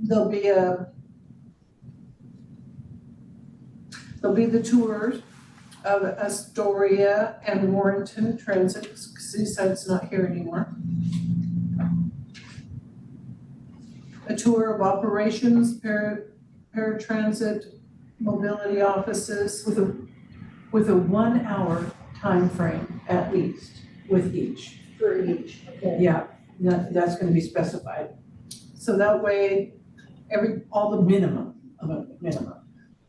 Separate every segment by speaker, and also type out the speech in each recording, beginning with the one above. Speaker 1: there'll be a, there'll be the tours of Astoria and Warrenton Transit, because he said it's not here anymore. A tour of operations, para, paratransit, mobility offices.
Speaker 2: with a, with a one-hour time frame at least with each.
Speaker 3: for each, okay.
Speaker 2: Yeah, that, that's gonna be specified,
Speaker 1: So that way, every, all
Speaker 2: the
Speaker 1: the,
Speaker 2: minimum, of a minimum.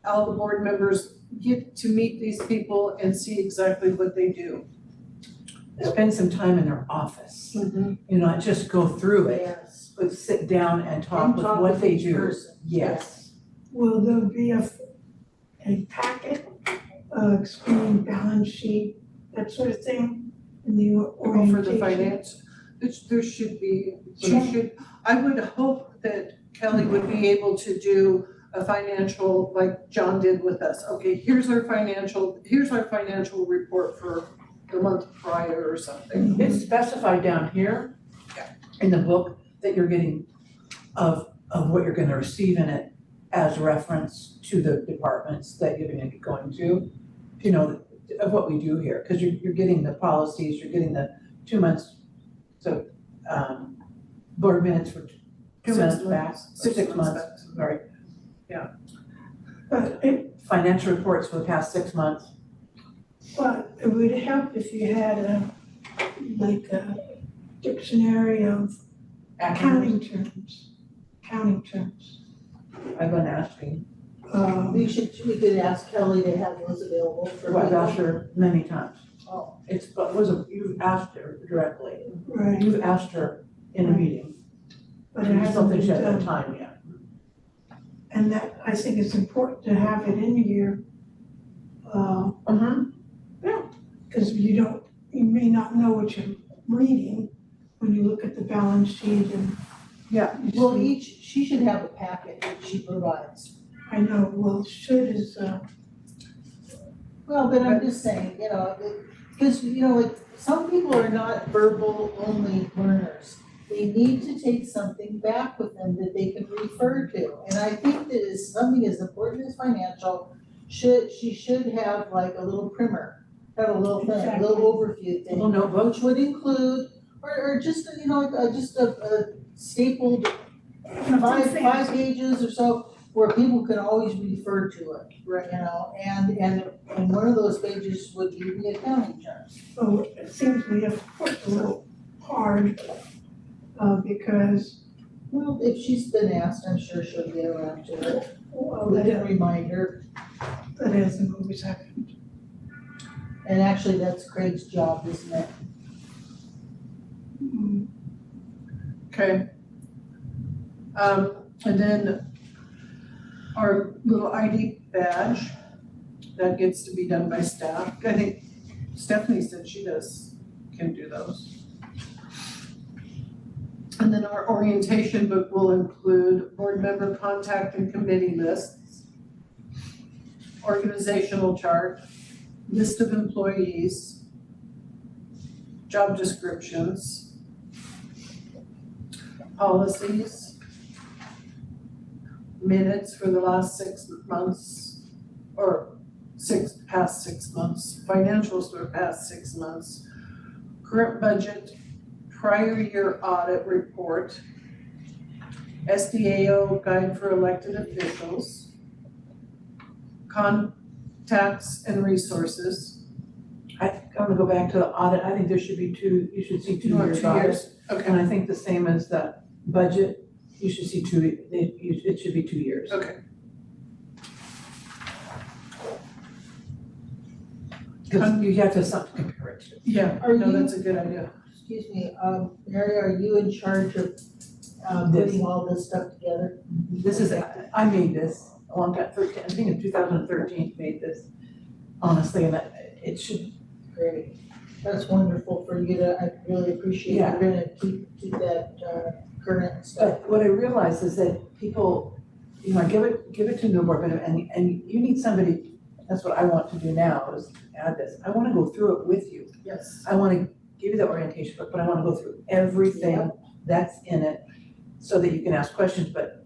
Speaker 1: all the board members get to meet these people and see exactly what they do.
Speaker 2: Spend some time in their office, you know, not just go through it,
Speaker 3: Yes.
Speaker 2: but sit down and talk
Speaker 3: And
Speaker 2: with
Speaker 3: talk
Speaker 2: what
Speaker 3: with
Speaker 2: they
Speaker 3: each
Speaker 2: do.
Speaker 3: person.
Speaker 2: Yes.
Speaker 4: Will there be a, a packet, uh, explaining balance sheet, that sort of thing, in the
Speaker 1: Or
Speaker 4: orientation?
Speaker 1: Oh, for the finance, it's- there should be, there should, I would hope that Kelly would be able to do a financial, like John did with us. Okay, here's our financial, here's our financial report for the month prior or something.
Speaker 2: It's specified down here
Speaker 1: Yeah.
Speaker 2: in the book that you're getting of, of what you're gonna receive in it as reference to the departments that you're gonna be going to. You know, of what we do here, cause you're, you're getting the policies, you're getting the two months, so, um, board minutes for two
Speaker 1: Six
Speaker 2: months back,
Speaker 1: months.
Speaker 2: or six months, sorry.
Speaker 4: But it,
Speaker 2: Financial reports for the past six months.
Speaker 4: but it would help if you had a, like a dictionary of
Speaker 2: Acronyms,
Speaker 4: accounting terms, accounting terms.
Speaker 2: I've been asking,
Speaker 4: Uh,
Speaker 3: We should, we could ask Kelly to have those available for.
Speaker 2: I've asked her many times.
Speaker 3: Oh.
Speaker 2: It's, but was, a- you've asked her directly.
Speaker 4: right,
Speaker 2: You've asked her in a meeting,
Speaker 4: but it hasn't
Speaker 2: something
Speaker 4: been
Speaker 2: she
Speaker 4: done.
Speaker 2: hasn't time yet.
Speaker 4: And that, I think it's important to have it in here, uh,
Speaker 2: Uh-huh.
Speaker 4: because you don't, you may not know what you're reading when you look at the balance sheet and.
Speaker 2: Yeah,
Speaker 4: You
Speaker 3: Well, e
Speaker 4: see-
Speaker 3: each, she should have a packet that she provides.
Speaker 4: I know, well, should is, uh,
Speaker 3: Well, but I'm just saying, you know, because, you know, like, some people are not verbal only learners. They need to take something back with them that they can refer to. And I think that is something as important as financial, should, she should have like a little primer, have a little thing, a little overview thing.
Speaker 2: Well, no vote,
Speaker 3: which would include, or, or just, you know, like, uh, just a, a stapled five, five pages or so, where people can always refer to it, you know, and, and, and one of those pages would be the accounting terms.
Speaker 4: so oh, it seems we have worked a little hard, uh, because,
Speaker 3: Well, if she's been asked, I'm sure she'll get around to it,
Speaker 4: well,
Speaker 3: we can
Speaker 4: oh, that,
Speaker 3: remind her,
Speaker 4: that hasn't always happened.
Speaker 3: and actually, that's Craig's job, isn't it?
Speaker 4: Mm,
Speaker 1: Okay. Um, and then our little ID badge, that gets to be done by staff. I think Stephanie said she does, can do those. And then our orientation book will include board member contact and committee lists, organizational chart, list of employees, job descriptions, policies, minutes for the last six months, or six, past six months, financials for past six months, current budget, prior year audit report, SDAO guide for elected officials, contacts and resources.
Speaker 2: I think, I'm gonna go back to the audit, I think there should be two, you should see two years
Speaker 1: Two
Speaker 2: audit.
Speaker 1: years, okay,
Speaker 2: And I think the same as the budget, you should see two, it, you- it should be two years.
Speaker 1: okay.
Speaker 2: Cause you have to have something to compare it to.
Speaker 1: Yeah,
Speaker 3: Are
Speaker 1: no,
Speaker 3: you-
Speaker 1: that's a good idea.
Speaker 3: Excuse me, um, Mary, are you in charge of, um,
Speaker 2: This.
Speaker 3: putting all this stuff together?
Speaker 2: This is, I made this a long time, thirteen, I think in two thousand and thirteen, made this, honestly, and it it should,
Speaker 3: Great, that's wonderful for you to, I really appreciate you're
Speaker 2: Yeah.
Speaker 3: gonna keep, keep that, uh, current stuff.
Speaker 2: But what I realize is that people, you know, I give it, give it to Newborn, but, and, and you need somebody, that's what I want to do now, is add this. I wanna go through it with you.
Speaker 3: Yes.
Speaker 2: I wanna give you the orientation book, but I wanna go through everything that's in it, so that you can ask questions, but